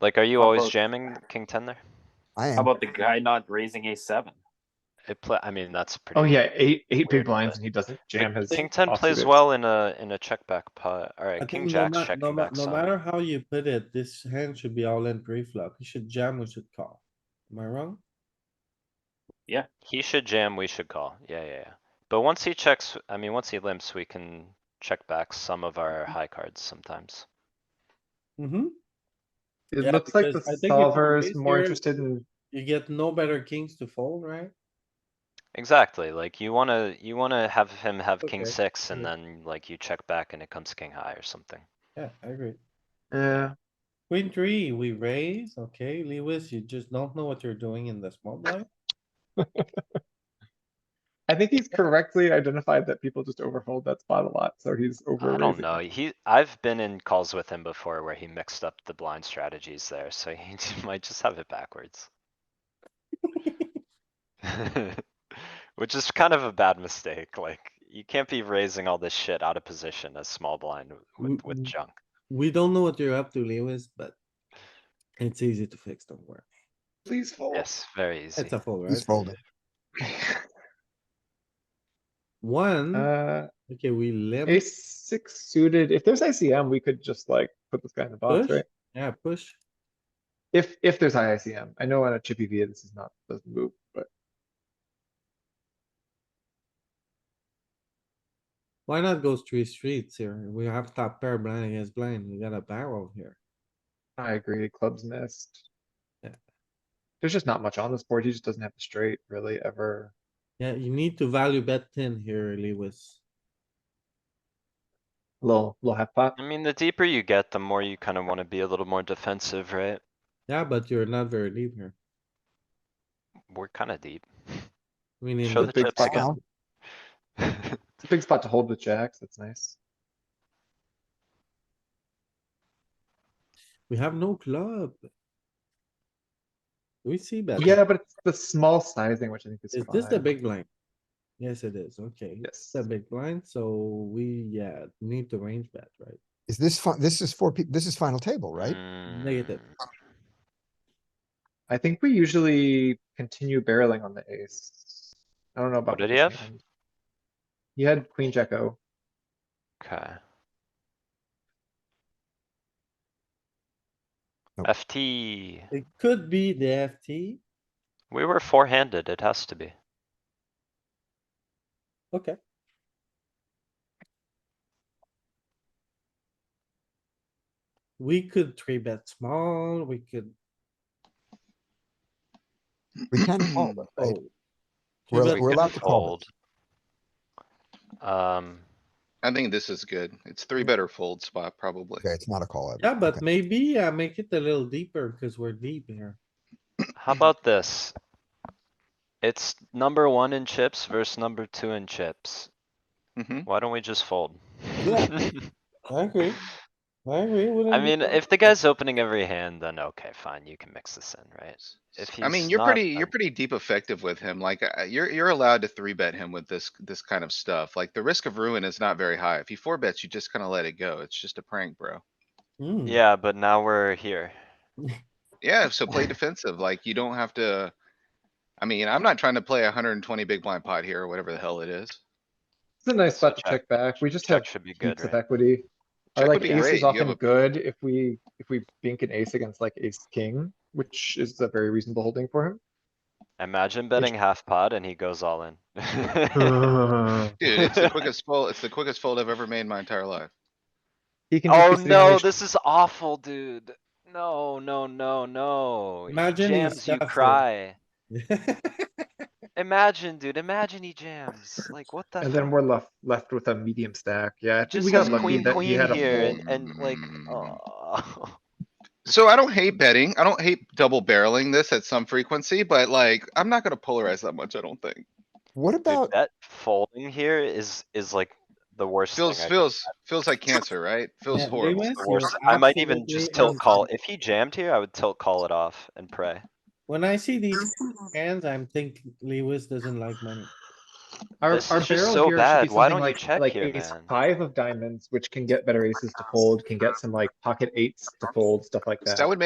Like, are you How always about- jamming king ten there? I How am. about the guy not raising a seven? It play, I mean, that's pretty. Oh yeah, eight, eight Weird, big blinds but- and he doesn't But jam his. King ten offsuit plays ace. well in a, in a check back pot. I Alright, king think no jack's ma- no checking ma- back No some. matter how you put it, this hand should be all in pre-flop. You should jam, we should call. Am I wrong? He should jam, we should call. Yeah, yeah, yeah. But once he checks, I mean, once he limps, we can check back some of our high cards sometimes. Mm-hmm. It Yeah, looks like the because I think if you solver is raise more here- interested in, You get no better kings to fold, right? Exactly, like you wanna, you wanna have him have king Okay, Mm-hmm. six and yeah. then like you check back and it comes king high or something. Yeah, I agree. yeah, Queen three, we raise, okay, Lewis, you just don't know what you're doing in the small blind. I think he's correctly identified that people just overfold that spot a lot, so he's over I don't raising. know, he, I've been in calls with him before where he mixed up the blind strategies there, so he might just have it backwards. Which is kind of a bad mistake, like, you can't be raising all this shit out of position as small blind with, with Mm, junk. We don't know what you're up to, Lewis, but it's easy to fix, don't worry. Please fold. Yes, very easy. It's a fold, He's right? folded. One, Uh, okay, we limp, ace six suited, if there's ICM, we could just like put this guy in the box, Push? right? yeah, push. If, if there's ICM, I know on a chippy V, this is not, doesn't move, but Why not go three streets here? We have top pair blind against blind. We got a barrel here. I agree, clubs missed. Yeah. There's just not much on this board, he just doesn't have the straight really ever. Yeah, you need to value bet ten here, Lewis. Little, little half pot. I mean, the deeper you get, the more you kinda wanna be a little more defensive, right? Yeah, but you're not very deep here. We're kinda deep. I mean, in Show the- the big chips pot again. Well, It's a big spot to hold with jacks, that's nice. we have no club. We see bet. Yeah, but it's the small sizing, which I think is Is this the fine. big blind? Yes, it is. Okay. Yes. The big blind, so we, yeah, need to range bet, right? Is this fun? This is four people. this is final table, right? Negative. Mm, I think we usually continue barreling on the ace. I don't know about. What did he this have? hand. He had queen jack O. Okay. Nope. FT, It could be the FT. we were four-handed, it has to be. Okay. We could three bet small, we could, Mm. We can fold, right? oh, We We're, bet we're can allowed to call. fold. Um, I think this is good. It's three better fold spot probably. Okay, it's not a call. yeah, Okay. but maybe I make it a little deeper because we're deep here. how about this? It's number one in chips versus number two in chips. hmm Why don't we just fold? Yeah. I agree. I agree. wouldn't I you mean, think? if the guy's opening every hand, then okay, fine, you can mix this in, right? If I mean, he's you're not, pretty, you're then- pretty deep effective with him. Like, uh, you're, you're allowed to three bet him with this, this kind of stuff. Like, the risk of ruin is not very high. If he four bets, you just kinda let it go. It's just a prank, bro. Hmm, Yeah, but now we're here. Yeah, so play defensive. Like, you don't have to. I mean, I'm not trying to play hundred and twenty big blind pot here or whatever the hell it is. It's a nice So spot to check- check back. We just Check have should be good, heaps of right? equity. I Check like would be ace great. is You have often a- good if we, if we bink an ace against like ace king, which is a very reasonable holding for him. Imagine betting half pot and he goes all in. Uh, Dude, it's the quickest fold, it's the quickest fold I've ever made in my entire life. He can just Oh be sitting on no, ace- this is awful, dude. No, no, no, no. He Imagine he jams, you stuffs it. cry. Imagine, dude, imagine he jams. Like, what the? And then fuck? we're left, left with a medium stack. Yeah, I think Just we got has lucky queen, that he queen had a here fold. and, and like, Mm. oh. So I don't hate betting. I don't hate double barreling this at some frequency, but like, I'm not gonna polarize that much, I don't think. What Dude, about, that folding here is, is like the worst thing. Feels, I could- feels, feels like cancer, right? Feels Yeah, horrible. Lewis, the you're worst- I might even absolutely just tilt call. on- If he jammed here, I would tilt call it off and pray. When I see these hands, I'm thinking Lewis doesn't like money. Our, This our is just barrel so here should bad. be Why something don't you like, check like here, ace man? five of diamonds, which can get better aces to fold, can get some like pocket eights to fold, stuff like that. That would